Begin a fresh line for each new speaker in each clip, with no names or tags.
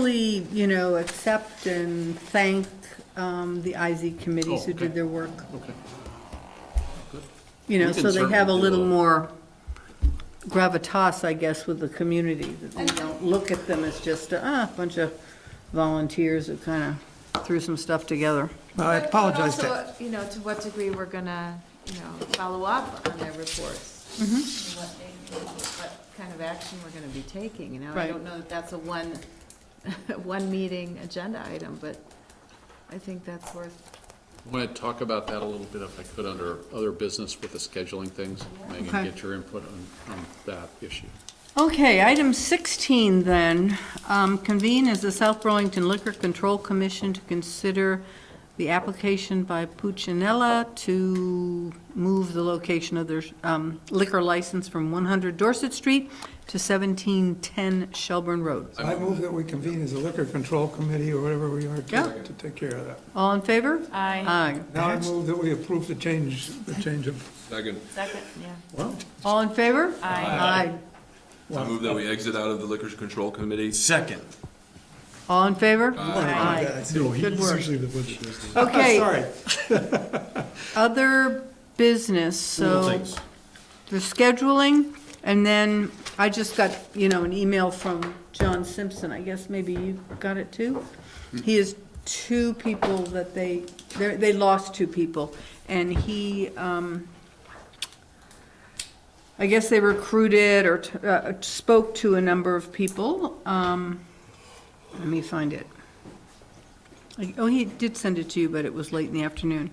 actually, you know, accept and thank um, the IZ committees
Oh,
who did
okay.
their work,
Okay.
you know,
We can
so they have a
certainly do
little
a-
more gravitas, I guess, with the community, that they don't look at them as just a ah, bunch of volunteers who kind of threw some stuff together.
I
But- but
apologize to,
also, You know, to what degree we're gonna, you know, follow up on their reports.
Mm-hmm.
And What they- what kind of action we're gonna be taking, you know? I
Right.
don't know that that's a one, one meeting agenda item, but I think that's worth,
I want to talk about that a little bit if I could under other business with the scheduling things. Megan,
Okay.
get your input on, on that issue.
Okay, item 16 then, um, convene as the South Burlington Liquor Control Commission to consider the application by Puccinella to move the location of their um, liquor license from 100 Dorset Street to 1710 Shelburne Road.
I move that we convene as a liquor control committee or whatever we are
Yeah.
to, to take care of that.
All in favor?
Aye.
Aye.
Now I move that we approve the change, the change of,
Second,
second, yeah.
All in favor? Aye.
I move that we exit out of the Liquor Control Committee.
Second.
All in favor? Aye. Good work. Okay.
sorry,
Other business, so. the scheduling, and then I just got, you know, an email from John Simpson, I guess maybe you got it too? He is two people that they, they're- they lost two people, and he, um, I guess they recruited or t- uh, spoke to a number of people. Um, Let me find it. Like, Oh, he did send it to you, but it was late in the afternoon.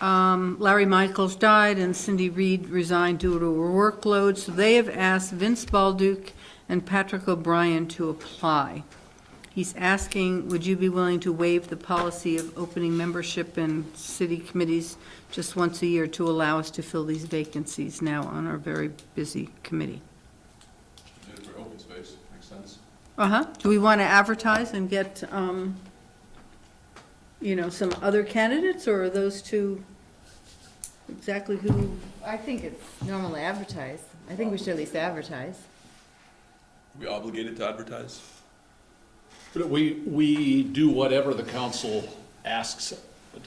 Um, Larry Michaels died and Cindy Reed resigned due to her workload, so they have asked Vince Balduke and Patrick O'Brien to apply. He's asking, would you be willing to waive the policy of opening membership in city committees just once a year to allow us to fill these vacancies now on our very busy committee?
For open space, makes sense.
Uh-huh. Do we want to advertise and get, um, you know, some other candidates, or are those two exactly who?
I think it's normal to advertise. I think we should at least advertise.
We obligated to advertise?
But we, we do whatever the council asks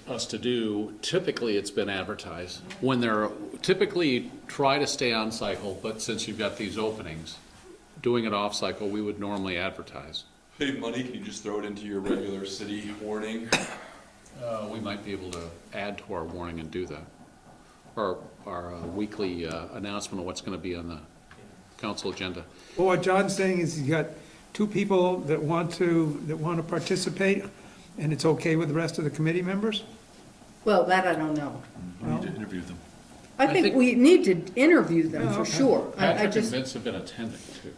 us to do. Typically, it's been advertised. When there, are- typically, try to stay on cycle, but since you've got these openings, doing it off cycle, we would normally advertise.
Save money, can you just throw it into your regular city warning?
Uh, We might be able to add to our warning and do that. Our, our uh, weekly uh, announcement of what's going to be on the council agenda.
well, what John's saying is he's got two people that want to, that want to participate, and it's okay with the rest of the committee members?
Well, that I don't know.
We need to interview them.
I
I
think
think-
we need to interview them, for sure. I I
Patrick and
just,
Vince have been attending too.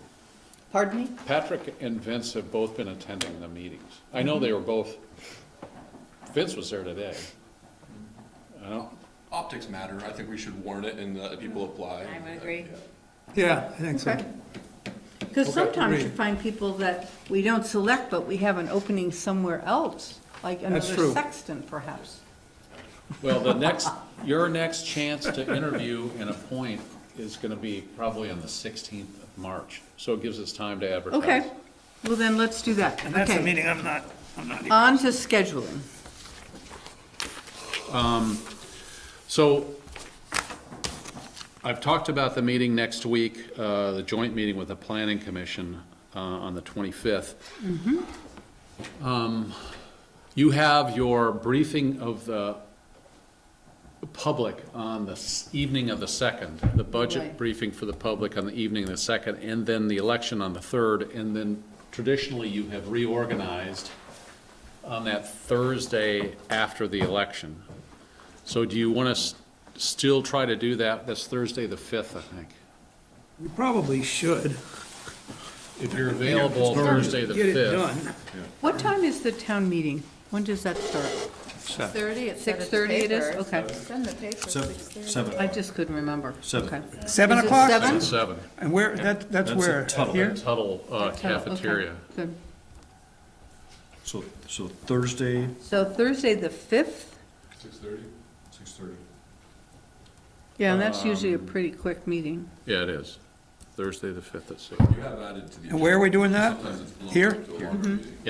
pardon me?
Patrick and Vince have both been attending the meetings. I know they were both, Vince was there today. I don't,
Optics matter, I think we should warn it and let people apply.
I would agree.
Yeah, I think so.
Because sometimes you
agreed.
find people that we don't select, but we have an opening somewhere else, like another
true.
sexton perhaps.
well, the next, your next chance to interview and appoint is gonna be probably on the sixteenth of March. So it gives us time to advertise.
Okay, well then, let's do that.
And that's the
Okay.
meeting, I'm not, I'm not.
On to scheduling.
So I've talked about the meeting next week, uh, the joint meeting with the planning commission uh, on the 25th. Um, You have your briefing of the public on the s- evening of the 2nd, the budget
Right.
briefing for the public on the evening of the 2nd, and then the election on the 3rd. And then traditionally, you have reorganized on that Thursday after the election. So do you want to still try to do that? That's Thursday, the 5th, I think.
We probably should.
If you're available Thursday, the 5th.
Get it done.
What time is the town meeting? When does that start?
Thirty, it's.
6:30 it is? Okay.
Send the paper,
Seven,
six thirty.
seven.
I just couldn't remember.
Seven.
Okay.
Seven
Is it
o'clock?
seven?
At 7,
And where, that, that's
That's at
where,
Tuttle.
here?
Tuttle uh,
Okay, okay,
Cafeteria.
Good.
So, so Thursday,
So Thursday, the 5th?
Six thirty?
six thirty.
Um,
Yeah, and that's usually a pretty quick meeting.
Yeah, it is. Thursday the 5th at 6.
You have added to the.
And where are we doing that?
Sometimes it's blown
Here?
up to a longer meeting.